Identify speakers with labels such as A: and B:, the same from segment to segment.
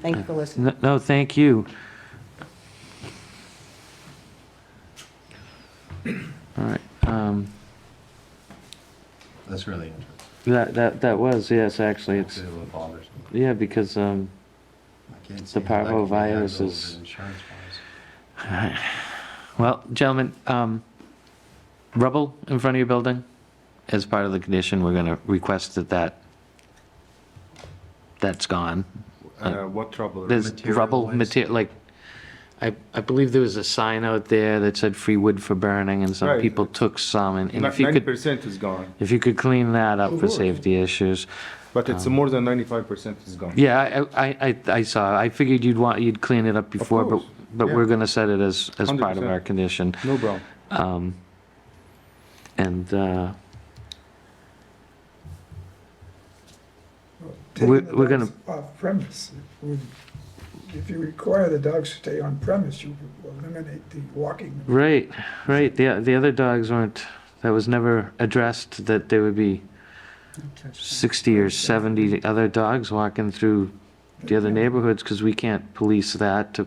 A: Thank you for listening.
B: N- No, thank you. All right, um,
C: That's really interesting.
B: that, that, that was, yes, actually, it's,
C: It's what bothers me.
B: yeah, because, um,
C: I can't
B: The
C: see how that could be
B: parvovirus
C: handled
B: is-
C: insurance-wise.
B: well, gentlemen, um, rubble in front of your building, as part of the condition, we're gonna request that that, that's gone.
D: Uh, What trouble?
B: There's rubble
C: Material-wise?
B: material, like, I, I believe there was a sign out there that said free wood for burning, and some
D: Right.
B: people took some, and and if you
D: Ninety
B: could,
D: percent is gone,
B: if you could clean that up for
D: Sure.
B: safety issues.
D: but it's more than ninety-five percent is gone.
B: Uh. Yeah, I- I, I, I saw, I figured you'd want, you'd clean it up before, but,
D: course,
B: but
D: yeah.
B: we're gonna set it as, as part of
D: 100%.
B: our condition.
D: No problem.
B: Um, and, uh,
E: taking
B: We're-
E: the
B: we're gonna-
E: dogs Off premise, It would- if you require the dogs to stay on premise, you eliminate the walking.
B: right, right, the, the other dogs weren't, that was never addressed, that there would be sixty or seventy other dogs walking through the other neighborhoods, cause we can't police that to,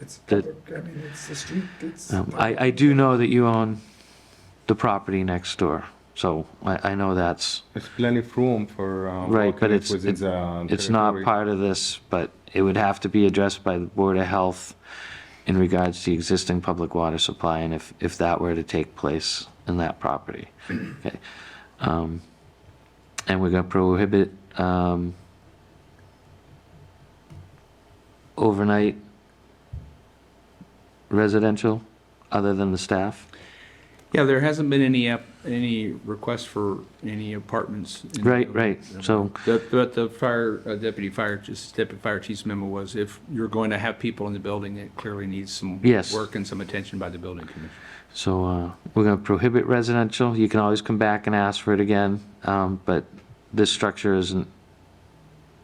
E: It's
B: the-
E: public, I mean, it's the street, it's.
B: um, I, I do know that you own the property next door, so I, I know that's
D: There's plenty of room for. uh,
B: Right, but
D: walking
B: it's-
D: within
B: it-
D: the
B: It's not
D: territory.
B: part of this, but it would have to be addressed by the Board of Health in regards to the existing public water supply and if, if that were to take place in that property. Okay. Um, And we're gonna prohibit, um, overnight residential, other than the staff?
F: Yeah, there hasn't been any, app- any request for any apartments. in the
B: Right,
F: building.
B: right, so,
F: The- But the fire, uh, deputy fire, just deputy fire chief's memo was if you're going to have people in the building, it clearly needs some
B: Yes.
F: work and some attention by the building commission.
B: so, uh, we're gonna prohibit residential, you can always come back and ask for it again, um, but this structure isn't,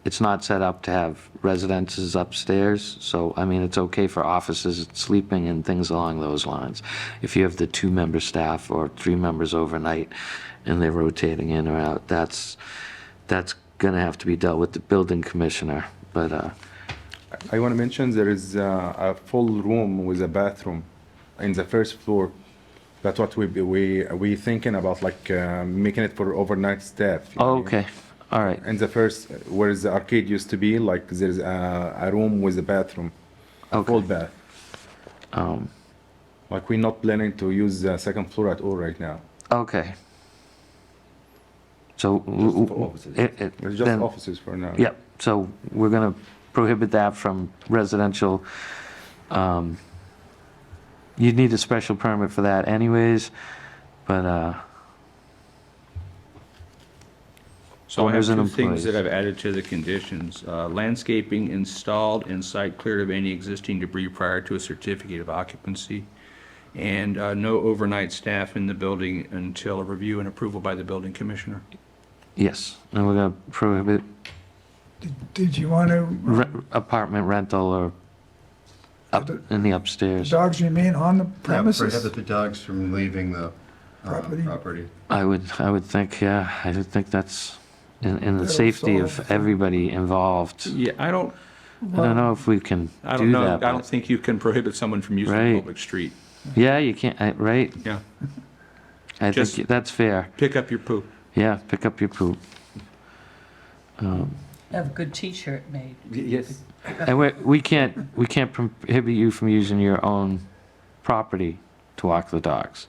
B: it's not set up to have residences upstairs, so, I mean, it's okay for offices, and sleeping and things along those lines. If you have the two-member staff or three members overnight and they're rotating in or out, that's, that's gonna have to be dealt with the building commissioner, but, uh,
D: I want to mention there is uh, a full room with a bathroom in the first floor. That's what we, we, we thinking about, like uh, making it for overnight staff. you know.
B: Oh, okay, all right,
D: In the first, where the arcade used to be, like there's a, a room with a bathroom, a full
B: Okay.
D: bath.
B: um,
D: Like we're not planning to use the second floor at all right now.
B: okay. So, w-
C: for
B: w-
C: offices.
B: it, it,
D: It's just
B: then,
D: offices for now.
B: Yep, so we're gonna prohibit that from residential. Um, You'd need a special permit for that anyways, but, uh,
F: So I
B: Owners
F: have
B: and
F: two things that
B: Oh, employees.
F: I've added to the conditions. Uh, Landscaping installed and site cleared of any existing debris prior to a certificate of occupancy. And uh, no overnight staff in the building until a review and approval by the building commissioner.
B: yes, and we're gonna prohibit
E: Did- Did you want to,
B: re- apartment rental or up in the upstairs.
E: dogs remain on the
C: Yeah,
E: premises?
C: Prohibit the dogs from leaving the uh,
E: Property.
C: property.
B: I would, I would think, yeah, I would think that's in, in the
E: That'll
B: safety of
E: solve-
B: everybody involved.
F: Yeah, I don't,
B: I don't know if we can
F: I
B: do
F: don't know, I
B: that,
F: don't
B: but,
F: think you can prohibit someone from using a
B: Right.
F: public street.
B: yeah, you can't, I- right?
F: Yeah,
B: I think
F: Just-
B: that's fair.
F: pick up your poop.
B: Yeah, pick up your poop. Um,
A: Have a good t-shirt made.
D: Yes.
B: And we, we can't, we can't prohibit you from using your own property to walk the dogs.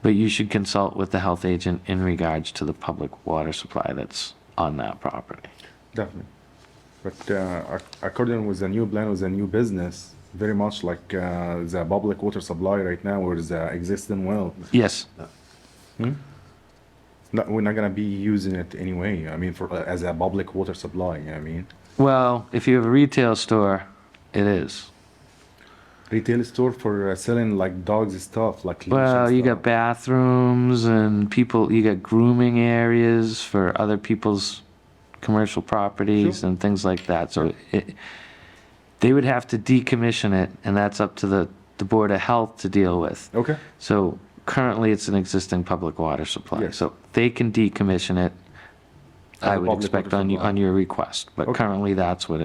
B: But you should consult with the health agent in regards to the public water supply that's on that property.
D: Definitely. But uh, ac- according with the new plan, with the new business, very much like uh, the public water supply right now or the existing well,
B: Yes,
D: no, we're not gonna be using it anyway. I mean, for uh, as a public water supply. I mean,
B: well, if you have a retail store, it is.
D: retail store for uh, selling like dogs stuff, like leash and
B: Well, you got
D: stuff.
B: bathrooms and people, you got grooming areas for other people's commercial properties and things like that, so it, they would have to decommission it, and that's up to the, the Board of Health to deal with.
D: Okay.
B: So currently, it's an existing public water supply,
D: Yes.
B: so they can decommission it,
D: As
B: I
D: a
B: would
D: public
B: expect
D: water
B: on, you-
D: supply.
B: on your request, but
D: Okay.
B: currently, that's what